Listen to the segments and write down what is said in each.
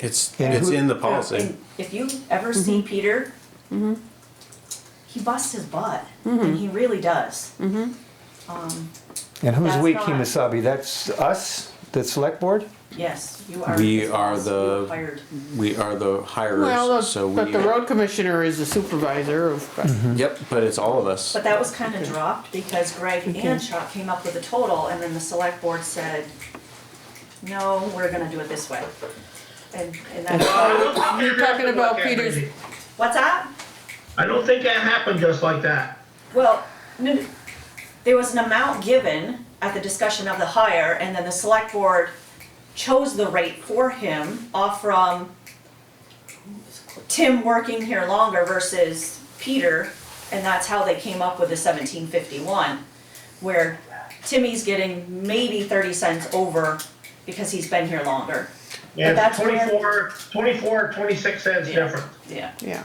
It's, Yeah. it's in the And policy. If you ever see Peter, he busts his butt, and he really does. Um, And who's That's we, not- Kimasabi? That's us, the select board? yes, you are. We are the- you hired. We are the Well, hirers, so the- we. Mm-hmm. but the road commissioner is the supervisor of, Yep, but it's all of us. But that was kind of dropped because Greg and Chuck came up with a total, and then the select board said, no, we're gonna do it this way. And, and that's, you're talking about Peter's, what's that? I don't think that happened just like that. Well, no, no. there was an amount given at the discussion of the hire, and then the select board chose the rate for him off from Tim working here longer versus Peter, and that's how they came up with the seventeen fifty-one, where Timmy's getting maybe thirty cents over because he's been here longer. But Yeah, that's where- 24, 24, 26 cents different. Yeah, yeah.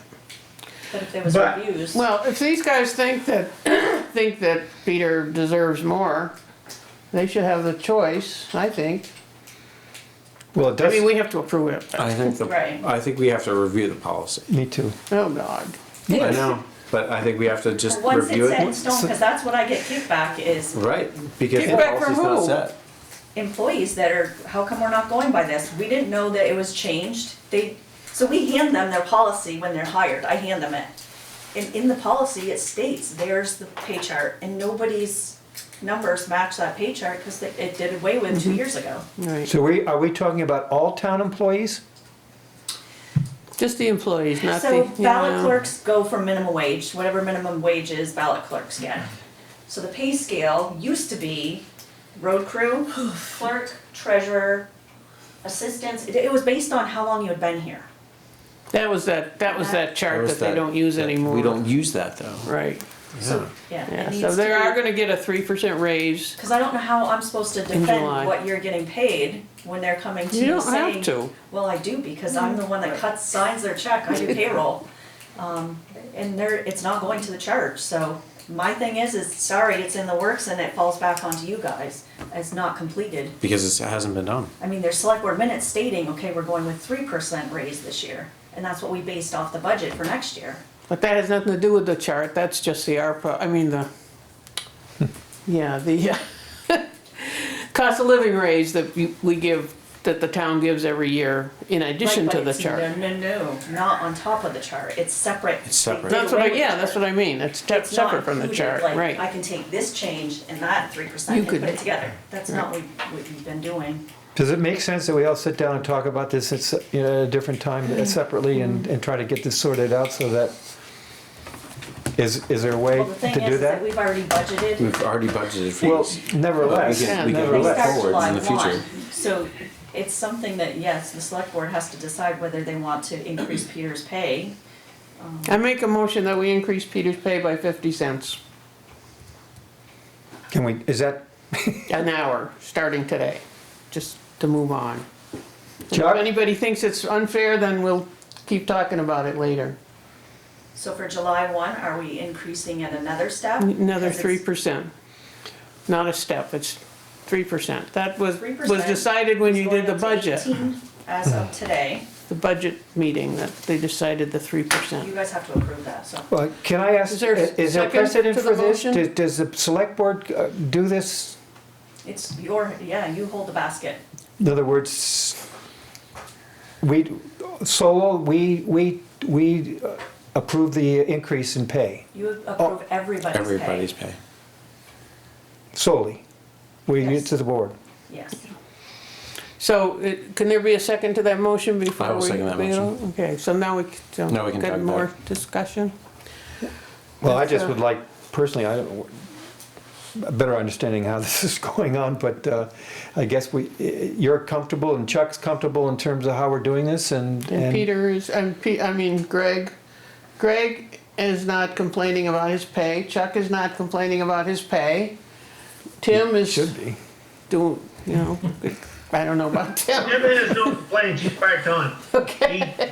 but if there was But- reviews, Well, if these guys think that, think that Peter deserves more, they should have the choice, I think. Well, it I mean, does, we have to approve it. I think, the- Right. I think we have to review the policy. me too. Oh, God. I know, but I think we have to just once review it's set in it. stone, because that's what I get kickback is, Right, because the Feedback from policy's not who? set. employees that are, how come we're not going by this? We didn't know that it was changed. They, so we hand them their policy when they're hired, I hand them it. And in the policy, it states, there's the pay chart, and nobody's numbers match that pay chart because it did away with Mm-hmm. two years ago. Right. So we, are we talking about all town employees? Just the employees, not the, So you ballot know. clerks go for minimum wage, whatever minimum wage is, ballot clerks get. So the pay scale used to be road crew, clerk, treasurer, assistants, it, it was based on how long you had been here. That was that, that was that Or chart is that they don't use that- anymore. We don't use that though. Right, Yeah. Yeah, yeah, it so needs they are to be, gonna get a three percent raise. because I don't know how I'm supposed to July. defend what you're getting paid when they're coming to You you don't have saying. to. Well, I do, because I'm the one that cuts, signs their check, I do payroll. Um, and they're, it's not going to the church, so my thing is, is sorry, it's in the works and it falls back onto you guys. It's not completed. Because it hasn't been done. I mean, there's select board minutes stating, okay, we're going with three percent raise this year, and that's what we based off the budget for next year. But that has nothing to do with the chart, that's just the ARPA, I mean, the, yeah, the uh, cost of living raise that you- we give, that the town gives every year in addition Right, to but the it's- chart. No, no, no, not on top of the chart, it's separate. It's separate. That's what I, yeah, that's what I mean, it's te- It's not separate from the included, chart, like, I right. can take this change and that three percent You and put could- it together. That's not what what we've been doing. Does it make sense that we all sit down and talk about this at, se- you know, at a different time uh, separately and, and try to get this sorted out so that, is, is there a way Well, the thing to is do is that that? we've already budgeted. We've already budgeted for Well, this. nevertheless, We can- nevertheless. we can They start forward July in the future. one, so it's something that, yes, the select board has to decide whether they want to increase Peter's pay. I make a motion that we increase Peter's pay by fifty cents Can we, is that, an hour, starting today, just to move on. And If Chuck? anybody thinks it's unfair, then we'll keep talking about it later. So for July one, are we increasing at another step? Another Because three it's- percent, not a step, it's three percent. That was, 3% was decided when is you going did the up to budget, 18 As of today, the budget meeting, that they decided the three you percent. guys have to approve that, so. well, can I ask, Is there a is there second precedent to the for this? motion? Does- Does the select board uh, do this? It's your, yeah, you hold the basket. In other words, we, solo, we, we, we uh, approve the increase in pay You approve everybody's pay. Everybody's pay. solely. We, Yes. to the board. Yes. So, it- can there be a second to that motion before we? I will second that we go? Okay, so now we, c- so, Now we can talk got about more it. discussion? Well, I just would like, personally, I don't, a better understanding how this is going on, but uh, I guess we, you're comfortable and Chuck's comfortable in terms of how we're doing this and. And Peter is, and Pe, I mean Greg, Greg is not complaining about his pay, Chuck is not complaining about his pay. Tim is Should be. doing, you know, I don't know about Tim. Jim has no complaints, he's cracked on. Okay.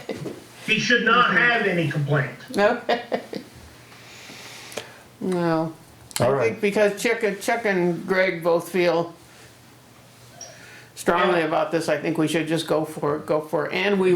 He, he should not have any complaint. Okay. No. I All right. think because Chuck, Chuck and Greg both feel strongly about this, I think we should just go for it, go for it. And we